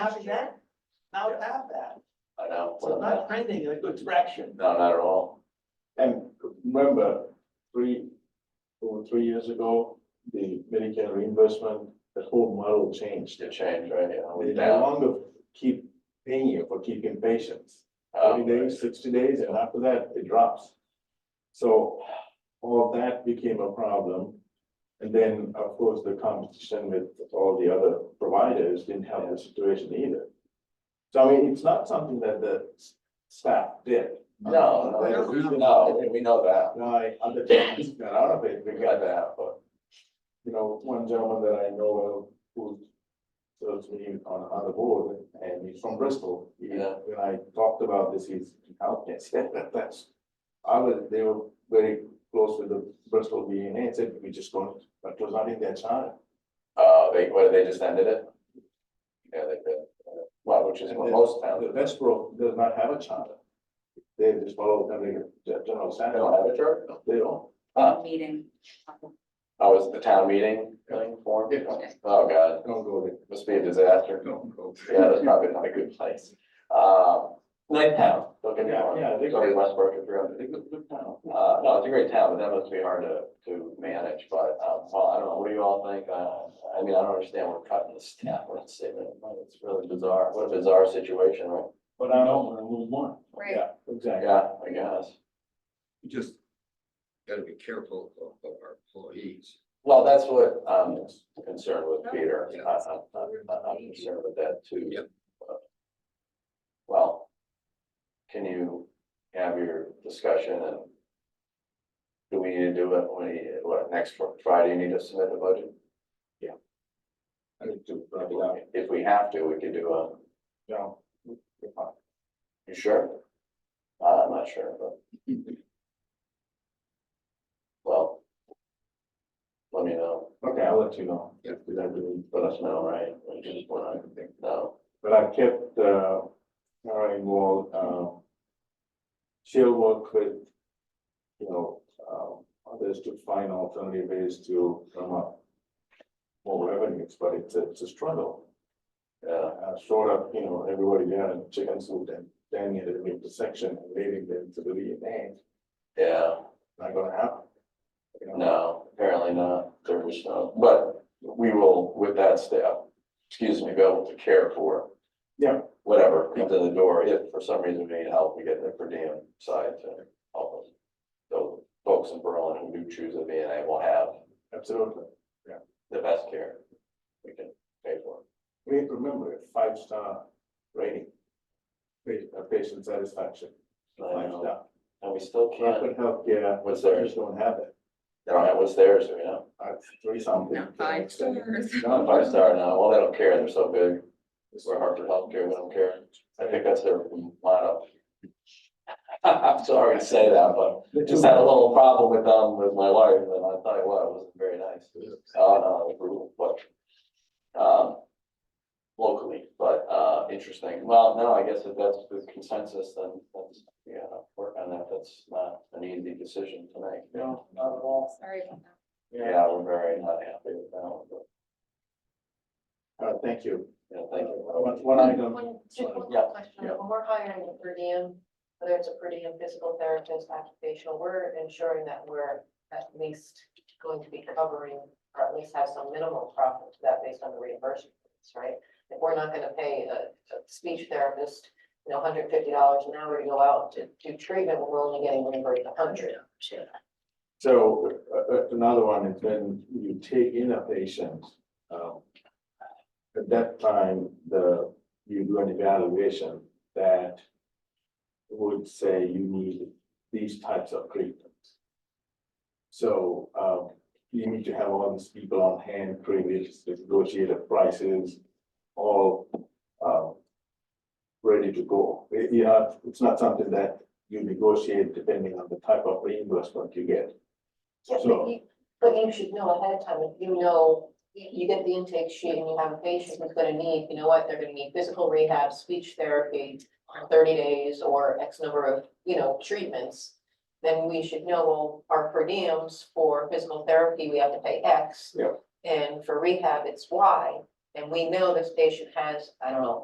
having that, now to have that, I know, so not trending in a good direction. no, not at all. And remember, three, two or three years ago, the Medicare reimbursement, the whole model changed. To change, right? Yeah, They we're no down. longer keep paying you for keeping patients, Um, thirty days, sixty days, and after that, it drops. So all that became a problem. And then, of course, the competition with all the other providers didn't help the situation either. So I mean, it's not something that the s- staff did. No, There's a no, reason no, we know that, why other towns got out of it, we got because, that, but you know, one gentleman that I know of who serves me on, on the board, and he's from Bristol. He- Yeah. When I talked about this, he's, how can I say that, that's, I was, they were very close with the Bristol V and A, said, we just going, but it was not in their charter. uh, they, what, they just ended it? Yeah, they did, Uh, well, which is And what the- most Now, towns, the do. they Westboro does not have a charter. They just follow the regular gen- general don't standard, have a chart, they don't. Huh? meeting. oh, it's the town meeting thing form? Yeah. Oh, God, Don't go there. must be a disaster, Don't go. yeah, that's probably not a good place. Um, nice town, don't get me Yeah, wrong, yeah, they- go to Westbrook if you're on They go- look down. Uh, no, it's a great town, but that must be hard to, to manage, but, um, well, I don't know, what do you all think? Uh, I mean, I don't understand, we're cutting the staff, we're not saving any money, it's really bizarre, what a bizarre situation, right? But I know, a little more. Right. Yeah, exactly. Yeah, I guess. We just gotta be careful of of our employees. Well, that's what um, I'm concerned with, Peter, I, I'm, I'm, I'm concerned with that too. Yep. Well, can you have your discussion and do we need to do it, when you- what, next Fri- Friday, you need to submit the budget? I need to If wrap it up, we- If we have to, we could do a, you know. if I- you sure? Uh, I'm not sure, but. Well. Let me know, Okay, I'll let you know. Yeah. Because I really- let us know, right? We just wanna know. But I kept, uh, her involved, um. She'll work with, you know, um, others to find alternative ways to come up. More revenues, but it's a, it's a struggle. Yeah, I showed up, you know, everybody there in chicken soup and then you had to make the section and leading them to the V and A, yeah, not gonna happen. You know? no, apparently not, there was no, but we will, with that staff, excuse me, be able to care for. Yeah. Whatever comes in the door, if for some reason we need help, we get the per diem side to help us. So folks in Berlin who do choose a VNA will have Absolutely. the best care we can pay for. We have to remember, a five-star rating. Pa- uh, Patient satisfaction, I know. five-star. And we still can't, Rapid healthcare, what's they theirs, just don't have it. they don't have what's theirs, you know, Uh, Three something. No, five stars. not five star now, well, they don't care, they're so big, we're Hartford Healthcare, we don't care, I think that's their lineup. I'm sorry to say that, but The just two- had a little problem with them with my wife, and I tell you what, it wasn't very nice, oh, no, it was brutal, but, um, locally, but, uh, interesting, well, no, I guess if that's the consensus, then that's, yeah, work on that, that's not an easy decision to make. No, not at all. Sorry about that. Yeah, we're very not happy with that one, but, Uh, thank you. you know, thank Uh, you. One, one item, One, just one Yeah, quick question, yeah. when we're hiring a per diem, whether it's a per diem physical therapist, occupational, we're ensuring that we're at least going to be covering, or at least have some minimal profit to that based on the reimbursement, rates, right? If we're not gonna pay a, a speech therapist, you know, hundred fifty dollars an hour to go out to do treatment, when we're only getting reimbursed a hundred. so, uh, uh, another one is when you take in a patient, um. At that time, the, you do an evaluation that. Would say you need these types of treatments. So, um, you need to have all these people on hand, create negotiated prices, all, um. Ready to go, It- you know, it's not something that you negotiate depending on the type of reimbursement you get. Yeah, So- but you, but you should know ahead of time, if you know, you, you get the intake sheet and you have a patient who's gonna need, you know what, they're gonna need physical rehab, speech therapy. for Thirty days or X number of, you know, treatments, then we should know, well, our per diems for physical therapy, we have to pay X. Yeah. And for rehab, it's Y, and we know this patient has, I don't know,